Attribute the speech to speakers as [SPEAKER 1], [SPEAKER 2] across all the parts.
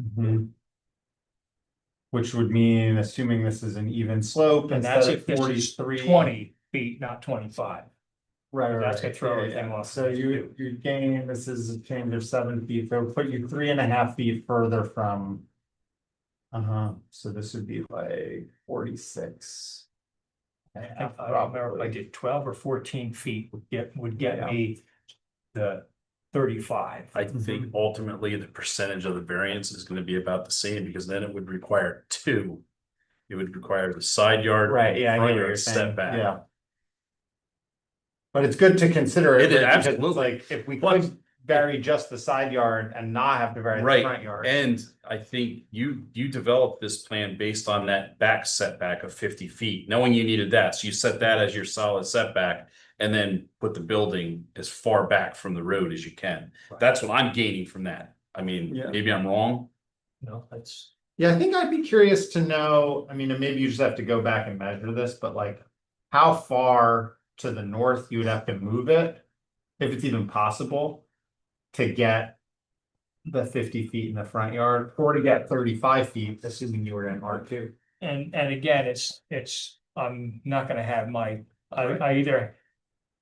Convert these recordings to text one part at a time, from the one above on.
[SPEAKER 1] Mm-hmm. Which would mean, assuming this is an even slope
[SPEAKER 2] And that's
[SPEAKER 1] instead of
[SPEAKER 2] if this is
[SPEAKER 1] forty-three.
[SPEAKER 2] twenty feet, not twenty-five.
[SPEAKER 1] Right, right.
[SPEAKER 2] That's gonna
[SPEAKER 1] right.
[SPEAKER 2] throw
[SPEAKER 1] Yeah,
[SPEAKER 2] everything
[SPEAKER 1] yeah.
[SPEAKER 2] off
[SPEAKER 1] So
[SPEAKER 2] the
[SPEAKER 1] you,
[SPEAKER 2] two.
[SPEAKER 1] you gain, this is a change of seven feet, so it'll put you three and a half feet further from. Uh-huh, so this would be like forty-six.
[SPEAKER 2] I think- I don't remember if I did twelve or fourteen feet would get, would get me the thirty-five.
[SPEAKER 3] I
[SPEAKER 1] Mm-hmm.
[SPEAKER 3] think ultimately the percentage of the variance is gonna be about the same, because then it would require two. It would require the side yard.
[SPEAKER 1] Right, yeah, I
[SPEAKER 3] front
[SPEAKER 1] get what
[SPEAKER 3] yard
[SPEAKER 1] you're saying,
[SPEAKER 3] setback.
[SPEAKER 1] yeah. But it's good to consider it,
[SPEAKER 3] It is,
[SPEAKER 1] right, because
[SPEAKER 3] absolutely.
[SPEAKER 1] like, if we
[SPEAKER 3] But-
[SPEAKER 1] could vary just the side yard and not have to vary the
[SPEAKER 3] Right,
[SPEAKER 1] front yard.
[SPEAKER 3] And I think you, you developed this plan based on that back setback of fifty feet, knowing you needed that, so you set that as your solid setback. And then put the building as far back from the road as you can,
[SPEAKER 2] Right.
[SPEAKER 3] that's what I'm gaining from that, I mean,
[SPEAKER 1] Yeah.
[SPEAKER 3] maybe I'm wrong.
[SPEAKER 2] No, that's,
[SPEAKER 1] Yeah, I think I'd be curious to know, I mean, and maybe you just have to go back and measure this, but like, how far to the north you would have to move it? If it's even possible to get the fifty feet in the front yard or to get thirty-five feet, assuming you were in R two.
[SPEAKER 2] and, and again, it's, it's, I'm not gonna have my, I, I either.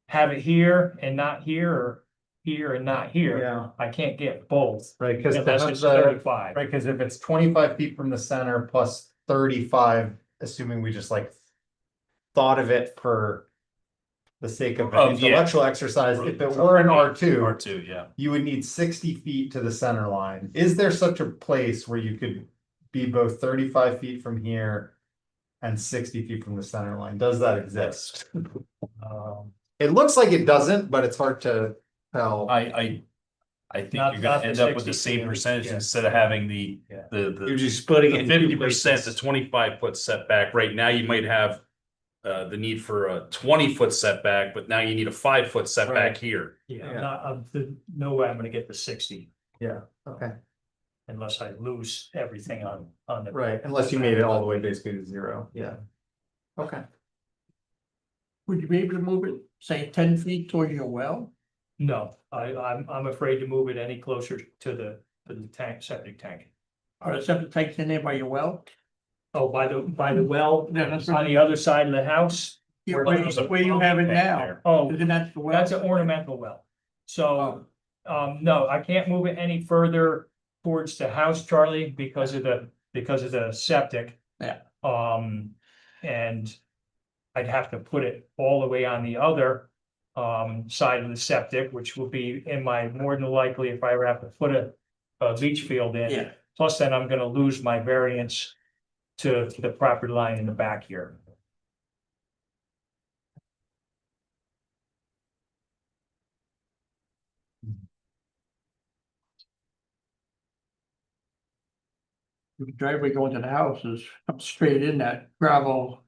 [SPEAKER 2] Have it here and not here, or here and not here, I can't get both,
[SPEAKER 1] Right, because uh,
[SPEAKER 2] unless it's thirty-five.
[SPEAKER 1] Right, because if it's twenty-five feet from the center plus thirty-five, assuming we just like. Thought of it for. The sake of
[SPEAKER 3] Oh, yeah.
[SPEAKER 1] an intellectual exercise, if it were an R two,
[SPEAKER 3] two, yeah.
[SPEAKER 1] you would need sixty feet to the center line. Is there such a place where you could be both thirty-five feet from here? And sixty feet from the center line? Does that exist? Um, It looks like it doesn't, but it's hard to tell.
[SPEAKER 3] I, I, I think
[SPEAKER 2] Not-
[SPEAKER 3] you're
[SPEAKER 2] not
[SPEAKER 3] gonna
[SPEAKER 2] the
[SPEAKER 3] end up with the
[SPEAKER 2] 60,
[SPEAKER 3] same percentage
[SPEAKER 2] yeah.
[SPEAKER 3] instead of having the,
[SPEAKER 2] Yeah.
[SPEAKER 3] the,
[SPEAKER 1] You're
[SPEAKER 3] the.
[SPEAKER 1] just splitting it. in two
[SPEAKER 3] Fifty percent, the
[SPEAKER 1] places.
[SPEAKER 3] twenty-five foot setback, right now you might have. Uh, the need for a twenty foot setback, but now you need a five foot setback
[SPEAKER 1] Right.
[SPEAKER 3] here.
[SPEAKER 2] Yeah,
[SPEAKER 1] Yeah.
[SPEAKER 2] I'm not, I'm, the- no way I'm gonna get the sixty
[SPEAKER 1] Okay.
[SPEAKER 2] unless I lose everything on, on the.
[SPEAKER 1] Right, unless you made it all the way basically to zero, yeah. Okay.
[SPEAKER 4] Would you be able to move it, say, ten feet towards your well?
[SPEAKER 2] No, I, I'm, I'm afraid to move it any closer to the, to the tank, septic tank.
[SPEAKER 4] Are the septic tanks in there by your well?
[SPEAKER 2] Oh, by the, by the well,
[SPEAKER 4] Hmm. Yeah, that's
[SPEAKER 2] on the other side of the house.
[SPEAKER 4] Yeah,
[SPEAKER 2] Where
[SPEAKER 4] Where
[SPEAKER 2] there's
[SPEAKER 3] a
[SPEAKER 4] where you have it now?
[SPEAKER 2] Oh,
[SPEAKER 4] Isn't that the well?
[SPEAKER 2] that's an ornamental well. So,
[SPEAKER 4] Oh,
[SPEAKER 2] um, no, I can't move it any further towards the house, Charlie, because of the, because of the septic.
[SPEAKER 4] Yeah.
[SPEAKER 2] Um, and I'd have to put it all the way on the other um, side of the septic, which will be in my, more than likely, if I ever have to put a a beach field in.
[SPEAKER 4] Yeah,
[SPEAKER 2] Plus then I'm gonna lose my variance to to the property line in the back here.
[SPEAKER 4] the driveway going to the house is up straight in that gravel.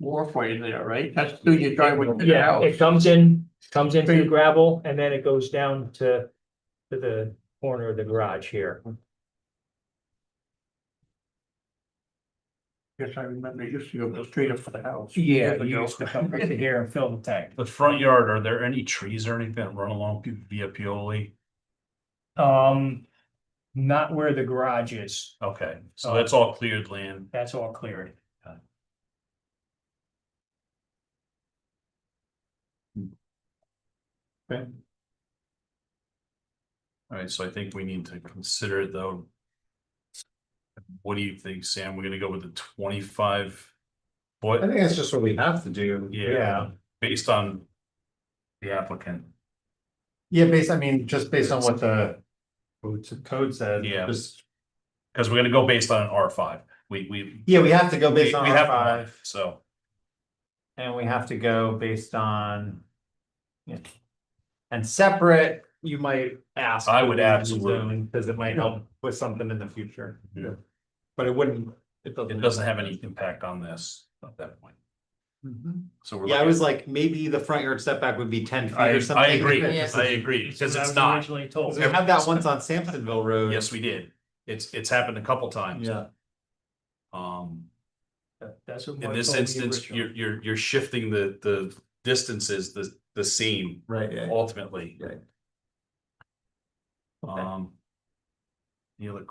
[SPEAKER 4] Wharfway there, right? That's through your driveway to the
[SPEAKER 2] Yeah,
[SPEAKER 4] house.
[SPEAKER 2] it comes in, comes in through
[SPEAKER 4] Pretty-
[SPEAKER 2] gravel and then it goes down to to the corner of the garage here.
[SPEAKER 4] Yes, I remember it used to go straight up for the house.
[SPEAKER 2] Yeah,
[SPEAKER 4] years
[SPEAKER 2] you
[SPEAKER 4] ago.
[SPEAKER 2] used to come right to here and fill the tank.
[SPEAKER 3] The front yard, are there any trees or anything that run along via Pioli?
[SPEAKER 2] Um, not where the garage is,
[SPEAKER 3] Okay,
[SPEAKER 2] Uh,
[SPEAKER 3] so that's all cleared land.
[SPEAKER 2] that's all cleared.
[SPEAKER 3] Alright, so I think we need to consider it though. What do you think, Sam? We're gonna go with the twenty-five?
[SPEAKER 1] I
[SPEAKER 3] foot
[SPEAKER 1] think that's just what we have to do. Yeah,
[SPEAKER 3] based on the applicant.
[SPEAKER 1] yeah, based, I mean, just based on what the. Code code said.
[SPEAKER 3] Yeah.
[SPEAKER 1] Just,
[SPEAKER 3] Cause we're gonna go based on an R five, we, we.
[SPEAKER 1] yeah, we have to go
[SPEAKER 3] we-
[SPEAKER 1] based on
[SPEAKER 3] we
[SPEAKER 1] R
[SPEAKER 3] have
[SPEAKER 1] five
[SPEAKER 3] So,
[SPEAKER 1] and we have to go based on. yeah. And separate, you might ask.
[SPEAKER 3] I would
[SPEAKER 1] for the
[SPEAKER 3] absolutely.
[SPEAKER 1] zoning, Cause it might help with something in the future.
[SPEAKER 3] Yeah.
[SPEAKER 1] But it wouldn't, it doesn't.
[SPEAKER 3] it doesn't have any impact on this at that point,
[SPEAKER 1] Mhm.
[SPEAKER 3] so we're.
[SPEAKER 1] Yeah, I
[SPEAKER 3] looking-
[SPEAKER 1] was like, maybe the front yard setback would be ten feet
[SPEAKER 3] I,
[SPEAKER 1] or something.
[SPEAKER 3] I agree,
[SPEAKER 5] Yeah.
[SPEAKER 3] I agree, because
[SPEAKER 2] That's what I
[SPEAKER 3] it's
[SPEAKER 2] was
[SPEAKER 3] not,
[SPEAKER 2] Originally told.
[SPEAKER 1] We have that once on Sampsonville Road.
[SPEAKER 3] yes, we did, it's, it's happened a couple times.
[SPEAKER 1] Yeah.
[SPEAKER 3] Um,
[SPEAKER 2] That's what
[SPEAKER 3] in
[SPEAKER 2] Mike
[SPEAKER 3] this
[SPEAKER 2] told me
[SPEAKER 3] instance,
[SPEAKER 2] originally.
[SPEAKER 3] you're, you're, you're shifting the, the distances, the, the same
[SPEAKER 1] Right, yeah.
[SPEAKER 3] ultimately.
[SPEAKER 1] Right.
[SPEAKER 3] Um. Any other